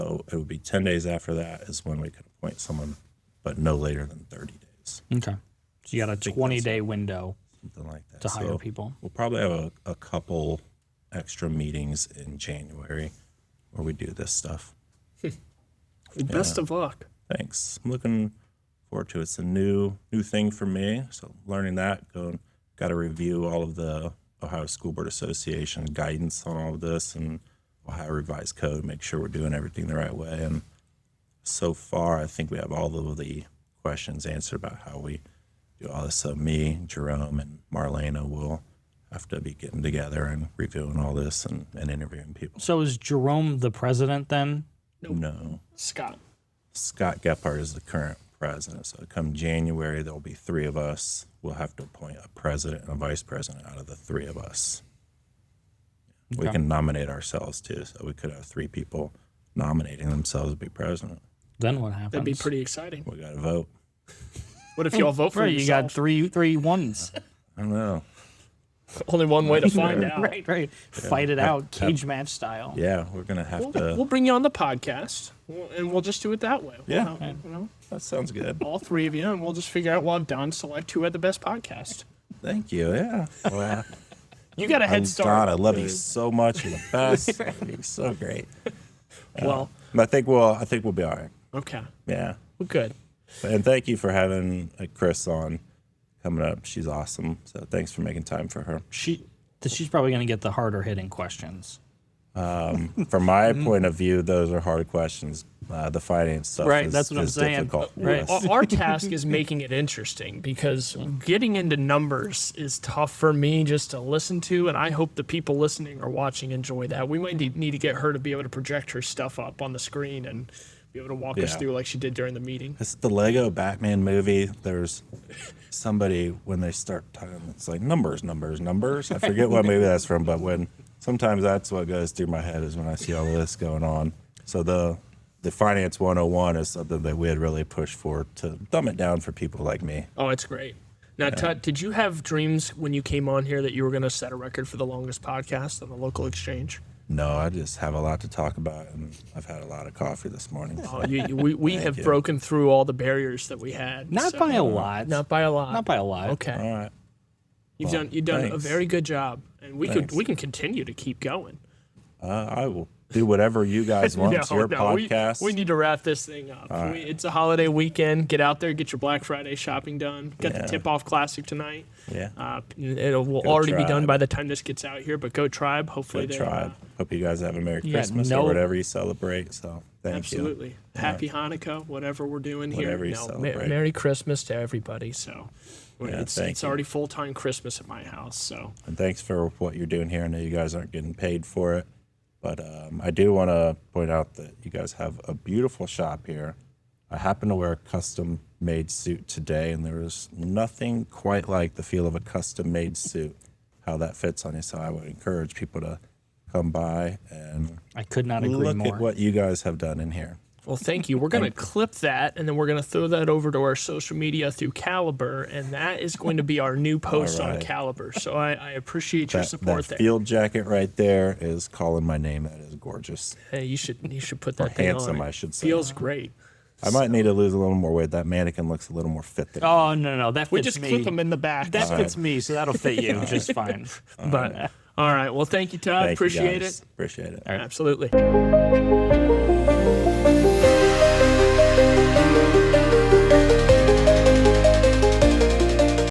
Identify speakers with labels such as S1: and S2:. S1: it would be 10 days after that is when we could appoint someone, but no later than 30 days,
S2: Okay. So you got a
S1: think that's-
S2: 20 day window
S1: something like that.
S2: to hire
S1: So
S2: people.
S1: We'll probably have a, a couple extra meetings in January where we do this stuff.
S3: Well, Best of luck.
S1: Thanks. I'm looking forward to it. It's a new new thing for me. So learning that, going got to review all of the Ohio School Board Association guidance on all of this and Ohio Revised Code. Make sure we're doing everything the right way. And so far, I think we have all of the questions answered about how we do all this. So me, Jerome, and Marlena will have to be getting together and reviewing all this and, and interviewing people.
S2: So is Jerome the president then?
S1: No.
S3: Scott.
S1: Scott Gephardt is the current president. So come January, there'll be three of us. We'll have to appoint a president and a vice president out of the three of us. We
S2: Okay.
S1: can nominate ourselves too. So we could have three people nominating themselves to be president.
S2: Then what happens?
S3: That'd be pretty exciting.
S1: We got to vote.
S3: What if y'all vote for
S2: Oh, Right, you got
S3: yourself?
S2: three three ones.
S1: I don't know.
S3: Only one way to find out.
S2: right, right. Fight it out, cage match style.
S1: Yeah, we're going to have
S3: We'll, we'll
S1: to.
S3: bring you on the podcast, we'll- and we'll just do it that way. We'll
S1: Yeah.
S3: have, you know,
S1: That sounds good.
S3: all three of you, and we'll just figure out. Well, I'm done. Select who had the best podcast.
S1: Thank you. Yeah. Wow.
S3: You got a head
S1: God,
S3: start.
S1: I love you so much. You're the best. You're so great.
S3: Well,
S1: I think we'll. I think we'll be all right.
S3: okay.
S1: Yeah.
S3: Well, good.
S1: And thank you for having uh, Chris on coming up. She's awesome. So thanks for making time for her.
S2: She th- she's probably gonna get the harder hitting questions.
S1: From my
S2: Mm-hmm.
S1: point of view, those are hard questions. Uh, the finance stuff
S2: Right,
S1: is,
S2: that's what I'm
S1: is
S2: saying.
S1: difficult. for
S2: Right.
S1: us.
S3: Our- Our task is making it interesting because getting into numbers is tough for me just to listen to, and I hope the people listening or watching enjoy that. We might need, need to get her to be able to project her stuff up on the screen and be able to walk us
S1: Yeah.
S3: through like she did during the meeting.
S1: It's the Lego Batman movie. There's somebody when they start talking, it's like numbers, numbers, numbers. I forget what movie that's from, but when sometimes that's what goes through my head is when I see all this going on. So the the finance 101 is something that we had really pushed for to dumb it down for people like me.
S3: Oh, it's great. Now, Tut, did you have dreams when you came on here that you were going to set a record for the longest podcast on the local exchange?
S1: No, I just have a lot to talk about, and I've had a lot of coffee this morning. so-
S3: Oh, you, you- we we have broken through all the barriers that we had.
S2: Not
S3: so- uh,
S2: by a lot.
S3: Not by a lot.
S2: Not by a lot.
S3: Okay.
S1: All right.
S3: You've done you've done a
S1: thanks.
S3: very good job, and we
S1: Thanks.
S3: could we can continue to keep going.
S1: Uh, I will do whatever you guys want. it's your
S3: we-
S1: podcast.
S3: We, need to wrap this thing up. We, it's a holiday weekend. Get out there, get your Black Friday shopping done. Got
S1: Yeah.
S3: the tip off classic tonight.
S1: yeah.
S3: Uh, it will already be done
S1: Tribe.
S3: by the time this gets out here. But go tribe. Hopefully uh,
S1: Good
S3: they
S1: tribe. Hope you guys have a Merry
S2: Yeah,
S1: Christmas
S2: no-
S1: or whatever you celebrate. So thank you.
S3: Absolutely. Happy Hanukkah, whatever we're doing
S1: Whatever
S3: here.
S1: you
S3: No, me-
S1: celebrate.
S3: Merry Christmas to everybody. So it's,
S1: thank
S3: it's
S1: you.
S3: already full time Christmas at my house. So
S1: And thanks for what you're doing here. I know you guys aren't getting paid for it, but um, I do want to point out that you guys have a beautiful shop here. I happen to wear a custom made suit today, and there is nothing quite like the feel of a custom made suit, how that fits on you. So I would encourage people to come by and
S2: I could not agree
S1: look
S2: more.
S1: at what you guys have done in here.
S3: Well, thank you. We're going to clip that and then we're going to throw that over to our social media through Caliber. And that is going to be our new post on
S1: right.
S3: Caliber. So I, I appreciate your
S1: That,
S3: support
S1: that
S3: there.
S1: field jacket right there is calling my name. That is gorgeous.
S3: Hey, you should you should put that thing
S1: handsome,
S3: on.
S1: I should say.
S3: Feels great.
S1: I might need to lose a little more weight. That mannequin looks a little more fit than
S2: Oh no, no, no, that fits
S3: We just
S2: me.
S3: clip them in the back.
S2: that
S3: so-
S2: fits me, so that'll fit you just fine.
S3: but all right. Well, Uh-huh. thank you, Todd.
S1: Thank you,
S3: appreciate
S1: guys.
S3: it.
S1: Appreciate it.
S3: Absolutely.